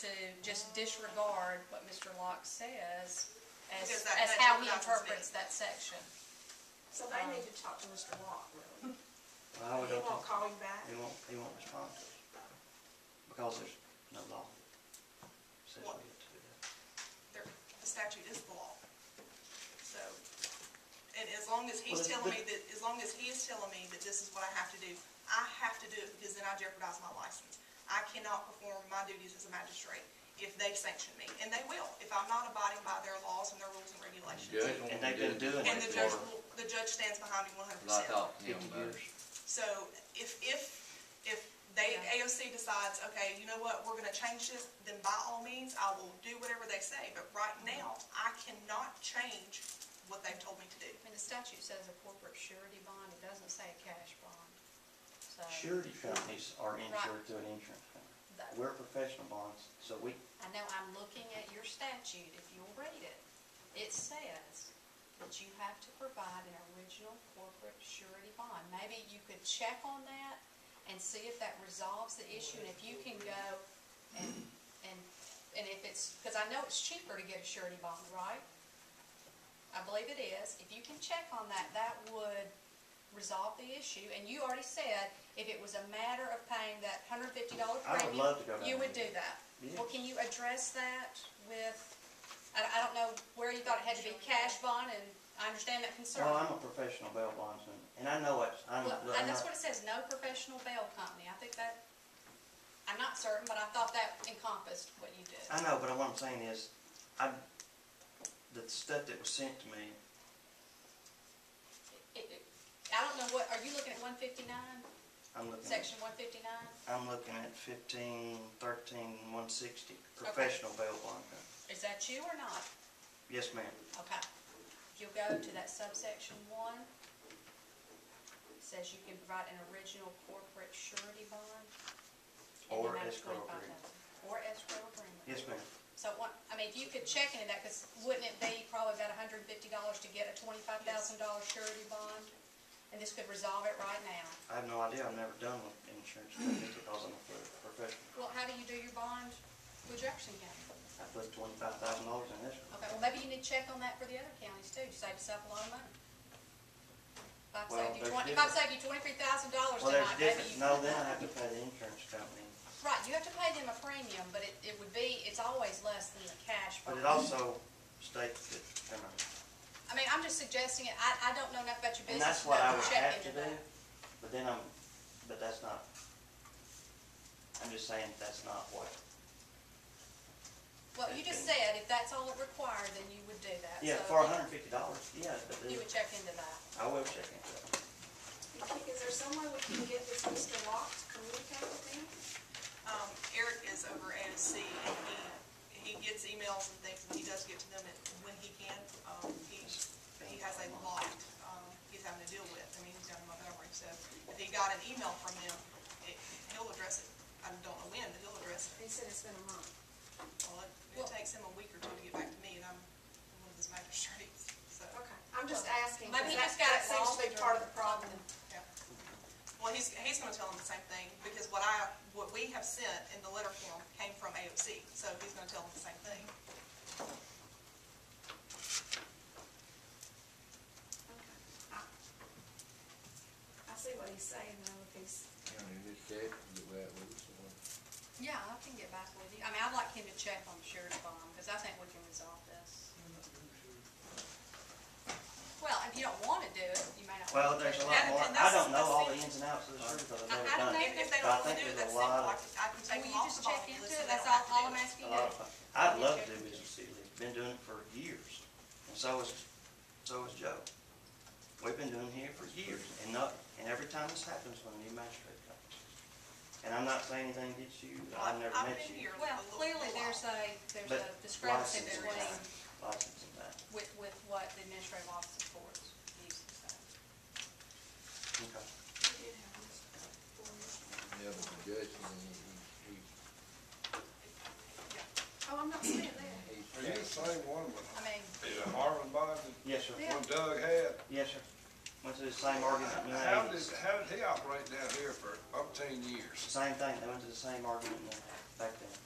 to just disregard what Mr. Locke says as, Because that- as that how he interprets interprets me. that section. So they need to talk to Mr. Locke, really. I would He hope won't that call him back. he won't, he won't respond to us, because there's no law that says we have to do that. There- The statute is the law. So, and as long as he's Well, telling me but- that, as long as he is telling me that this is what I have to do, I have to do it because then I jeopardize my license. I cannot perform my duties as a magistrate if they sanction me, and they will, if I'm not abiding by their laws and their rules and regulations. Judge, when And they've we been did doing And the it for- judge, will- the judge stands behind me one hundred I percent. thought, you know, fifty but- years. So if, if, if they, AOC decides, okay, you know what, we're gonna change this, then by all means, I will do whatever they say, but right now, I cannot change what they've told me to do. I mean, the statute says a corporate surety bond, it doesn't say a cash bond. So, Surety companies are insured through an insurance company. that- We're professional bonds, so we, I know I'm looking at your statute, if you'll read it. It says that you have to provide an original corporate surety bond. Maybe you could check on that and see if that resolves the issue, and if you can go and, and, and if it's, because I know it's cheaper to get a surety bond, right? I believe it is. If you can check on that, that would resolve the issue. And you already said, if it was a matter of paying that hundred fifty dollar I would premium, love to go down you would do there. that. Yeah. Well, can you address that with, I, I don't know where you thought it had to be cash bond, and I understand that concern. well, I'm a professional bail bondsman, and I know it's, I'm, Well, I'm and that's not, what it says, no professional bail company. I think that, I'm not certain, but I thought that encompassed what you did. I know, but what I'm saying is, I, the stuff that was sent to me, It- it- I don't know what, are you looking at one fifty-nine, I'm looking at, section one fifty-nine? I'm looking at fifteen, thirteen, one sixty, professional bail bond company. Is that you or not? Yes, ma'am. Okay. You'll go to that subsection one. It Says you can provide an original corporate surety bond. in the Or amount of escrow 25,000. agreement. Or escrow agreement. Yes, ma'am. So what, I mean, if you could check into that, because wouldn't it be probably about hundred and fifty dollars to get a twenty-five thousand dollar surety bond? And this could resolve it right now. I have no idea. I've never done with insurance companies because I'm a pro- professional. Well, how do you do your bond with Jefferson County? I put twenty-five thousand dollars in this. Okay, well, maybe you need to check on that for the other counties too, you save yourself a lot of money. If I Well, save you there's twenty, if I different- save you twenty-three thousand dollars Well, there's tonight, maybe difference. you. No, then I have to pay the insurance company. Right, you have to pay them a premium, but it, it would be, it's always less than the cash. But it bond. also states that, you know, I mean, I'm just suggesting it, I, I don't know enough about your and business that's to what I know would to check have to into do. that. But then I'm, but that's not, I'm just saying that's not what, Well, you just said if that's all it required, then you would do that. yeah, So for hundred and fifty dollars, yeah, but You then would check into that. I will check into it. Is there some way we can get this Mr. Locke to communicate with him? Um, Eric is over at AOC, and he, he gets emails and things, and he does get to them at- when he can. Um, he, he has a lot, um, he's having to deal with, I mean, he's down in Montgomery, so if he got an email from them, it, he'll address it. I don't know when, but he'll address it. He said it's been a month. Well, it, it takes him a week or two to get back to me, and I'm one of his magistrates, so, Okay, I'm just asking, Maybe he because that, just got it that seems to be lost part or of the problem. yeah. Well, he's, he's gonna tell him the same thing, because what I, what we have sent in the letter form came from AOC, so he's gonna tell him the same thing. Okay. I I see what he's saying though, if he's, You know, you just said you were at least one. Yeah, I can get back with you. I mean, I'd like him to check on the sheriff's bond, because I think we can resolve this. Well, if you don't want to do it, you may not. Well, want to there's do it. a lot And- more. and that's- I don't know that's all the- the ins and outs of the surgery because I- I've I never don't done know it. If if they don't But I want to think do it, there's that's a lot simple, I of- can, I can Will take them you off just the bottom check list into so it? they That's don't all, have to all do I'm it. asking A you to lot do. of- Uh, I'd love to do business with Sealy, been doing it for years, and so has, so has Joe. We've been doing here for years, and not, and every time this happens, when a new magistrate comes. And I'm not saying anything against you, I've never I've met been you. here a Well, little- clearly, little there's while. a, there's But a discrepancy license is between, not- License and that, with, with what the administrative office of courts uses. so. okay. we did have this before. Yeah, but the judge, I mean, he, he, Oh, I'm not saying that. he. Are you the same one with I mean, the Marvin Bond, Yes, sir. the one Doug had? Yes, sir. Went through the same argument in How the did, eighties. how did he operate down here for umpteen years? Same thing, they went through the same argument in the- back then.